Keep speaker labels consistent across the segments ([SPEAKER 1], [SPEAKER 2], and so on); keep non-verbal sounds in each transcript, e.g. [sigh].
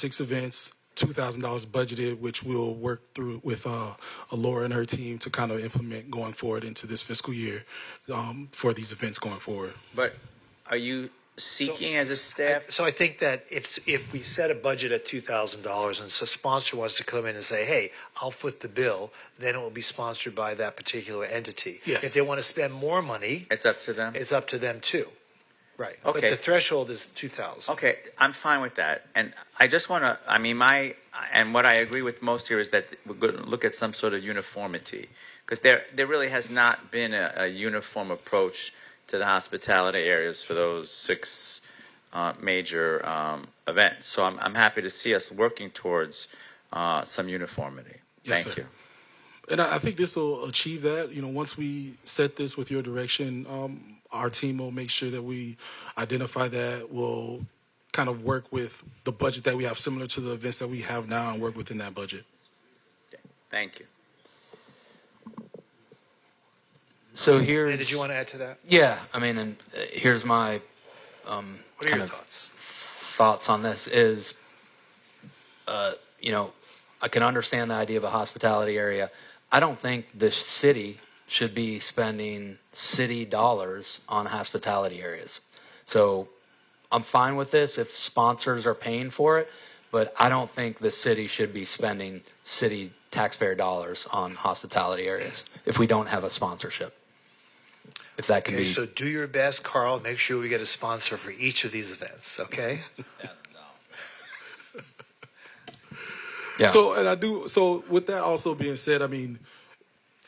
[SPEAKER 1] six events, two thousand dollars budgeted, which we'll work through with uh, Laura and her team to kind of implement going forward into this fiscal year um, for these events going forward.
[SPEAKER 2] But are you seeking as a staff?
[SPEAKER 3] So I think that if, if we set a budget at two thousand dollars and so sponsor wants to come in and say, hey, I'll foot the bill, then it will be sponsored by that particular entity.
[SPEAKER 1] Yes.
[SPEAKER 3] If they want to spend more money,
[SPEAKER 2] It's up to them.
[SPEAKER 3] it's up to them too. Right.
[SPEAKER 2] Okay.
[SPEAKER 3] But the threshold is two thousand.
[SPEAKER 2] Okay, I'm fine with that. And I just want to, I mean, my, and what I agree with most here is that we're going to look at some sort of uniformity. Because there, there really has not been a, a uniform approach to the hospitality areas for those six uh, major um, events. So I'm, I'm happy to see us working towards uh, some uniformity.
[SPEAKER 1] Yes,
[SPEAKER 2] Thank
[SPEAKER 1] sir.
[SPEAKER 2] you.
[SPEAKER 1] And I, I think this will achieve that. You know, once we set this with your direction, um, our team will make sure that we identify that. We'll kind of work with the budget that we have, similar to the events that we have now, and work within that budget.
[SPEAKER 2] Thank you.
[SPEAKER 4] So here's.
[SPEAKER 3] And did you want to add to that?
[SPEAKER 4] Yeah, I mean, and uh, here's my um,
[SPEAKER 3] What are
[SPEAKER 4] kind
[SPEAKER 3] your
[SPEAKER 4] of
[SPEAKER 3] thoughts?
[SPEAKER 4] thoughts on this is, uh, you know, I can understand the idea of a hospitality area. I don't think the city should be spending city dollars on hospitality areas. So I'm fine with this if sponsors are paying for it, but I don't think the city should be spending city taxpayer dollars on hospitality areas if we don't have a sponsorship. If that can
[SPEAKER 3] Okay,
[SPEAKER 4] be
[SPEAKER 3] so do your best, Carl. Make sure we get a sponsor for each of these events. Okay.
[SPEAKER 4] Yeah.
[SPEAKER 1] So, and I do. So, with that also being said, I mean,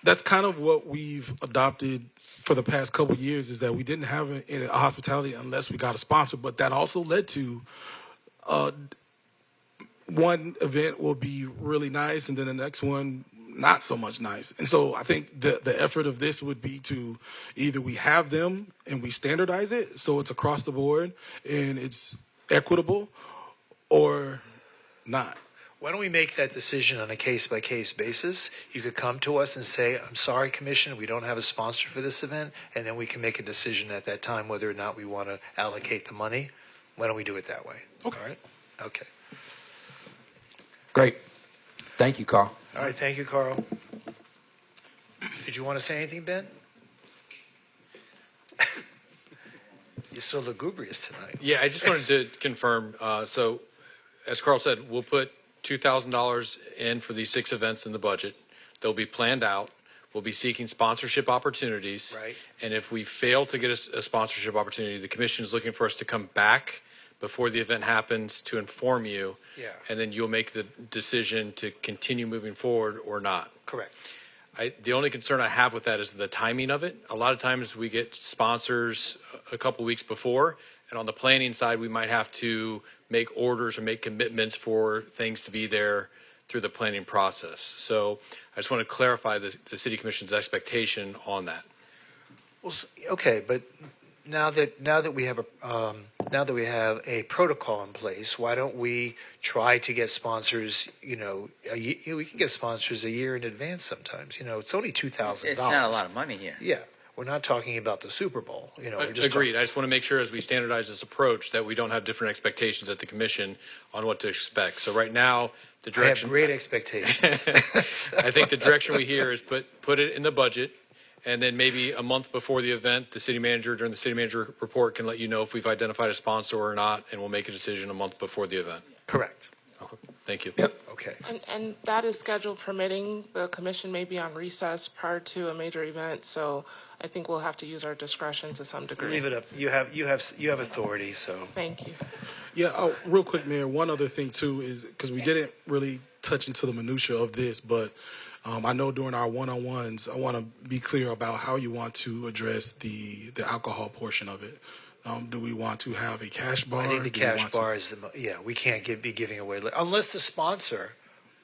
[SPEAKER 1] that's kind of what we've adopted for the past couple years is that we didn't have a, a hospitality unless we got a sponsor, but that also led to. Uh, one event will be really nice and then the next one not so much nice. And so I think the the effort of this would be to either we have them and we standardize it so it's across the board and it's equitable or not.
[SPEAKER 3] Why don't we make that decision on a case by case basis? You could come to us and say, I'm sorry, Commissioner, we don't have a sponsor for this event, and then we can make a decision at that time whether or not we want to allocate the money. Why don't we do it that way?
[SPEAKER 1] Okay.
[SPEAKER 3] All right. Okay.
[SPEAKER 4] Great. Thank you, Carl.
[SPEAKER 3] All right. Thank you, Carl. Did you want to say anything, Ben? [laughs] You're so lugubrious tonight.
[SPEAKER 5] Yeah, I just wanted to confirm, uh, so as Carl said, we'll put $2,000 in for these six events in the budget. They'll be planned out. We'll be seeking sponsorship opportunities.
[SPEAKER 3] Right.
[SPEAKER 5] And if we fail to get a s- a sponsorship opportunity, the commission is looking for us to come back before the event happens to inform you.
[SPEAKER 3] Yeah.
[SPEAKER 5] And then you'll make the decision to continue moving forward or not.
[SPEAKER 3] Correct.
[SPEAKER 5] I, the only concern I have with that is the timing of it. A lot of times we get sponsors a couple weeks before, and on the planning side, we might have to make orders or make commitments for things to be there through the planning process. So I just want to clarify the, the city commission's expectation on that.
[SPEAKER 3] Well, s- okay, but now that now that we have a um, now that we have a protocol in place, why don't we try to get sponsors? You know, a, ye- we can get sponsors a year in advance sometimes. You know, it's only two thousand
[SPEAKER 2] It's
[SPEAKER 3] dollars.
[SPEAKER 2] not a lot of money here.
[SPEAKER 3] Yeah, we're not talking about the Super Bowl. You know, we're just
[SPEAKER 5] Uh, Agreed. I just want to make sure as we standardize this approach that we don't have different expectations at the commission on what to expect. So right now, the
[SPEAKER 3] Talking, I have
[SPEAKER 5] direction.
[SPEAKER 3] great
[SPEAKER 5] [laughs]
[SPEAKER 3] expectations.
[SPEAKER 5] I think the direction we hear is put, put it in the budget, and then maybe a month before the event, the city manager, during the city manager report, can let you know if we've identified a sponsor or not, and we'll make a decision a month before the event.
[SPEAKER 3] Correct.
[SPEAKER 5] Okay. Thank you.
[SPEAKER 3] Okay.
[SPEAKER 6] And, and that is scheduled permitting. The commission may be on recess prior to a major event, so I think we'll have to use our discretion to some degree.
[SPEAKER 3] Leave it up. You have you have s- you have authority. So
[SPEAKER 6] Thank you.
[SPEAKER 1] Yeah, oh, real quick, Mayor. One other thing too is because we didn't really touch into the minutia of this, but um, I know during our one-on-ones, I want to be clear about how you want to address the the alcohol portion of it. Um, do we want to have a cash bar?
[SPEAKER 3] I think the
[SPEAKER 1] Do we
[SPEAKER 3] cash
[SPEAKER 1] want to-
[SPEAKER 3] bar is the mo- yeah. We can't give, be giving away li- unless the sponsor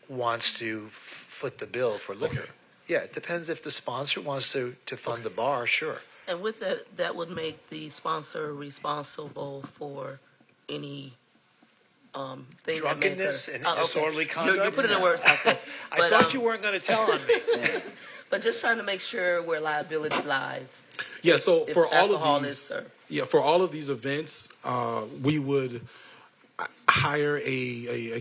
[SPEAKER 3] wants to f- foot the bill for liquor. Yeah, it depends if the sponsor wants to to fund the bar. Sure.
[SPEAKER 7] And with that, that would make the sponsor responsible for any um, thing that may occur.
[SPEAKER 3] Drunkenness and
[SPEAKER 7] Oh, okay.
[SPEAKER 3] disorderly
[SPEAKER 7] You're-
[SPEAKER 3] conduct.
[SPEAKER 7] You're putting the words
[SPEAKER 3] [laughs]
[SPEAKER 7] out there.
[SPEAKER 3] I
[SPEAKER 7] But,
[SPEAKER 3] thought
[SPEAKER 7] um,
[SPEAKER 3] you weren't going to tell on me.
[SPEAKER 7] But just trying to make sure where liability lies.
[SPEAKER 1] Yeah, so
[SPEAKER 7] if
[SPEAKER 1] for all
[SPEAKER 7] alcohol
[SPEAKER 1] of
[SPEAKER 7] is
[SPEAKER 1] these,
[SPEAKER 7] served.
[SPEAKER 1] yeah, for all of these events, uh, we would uh, hire a, a, a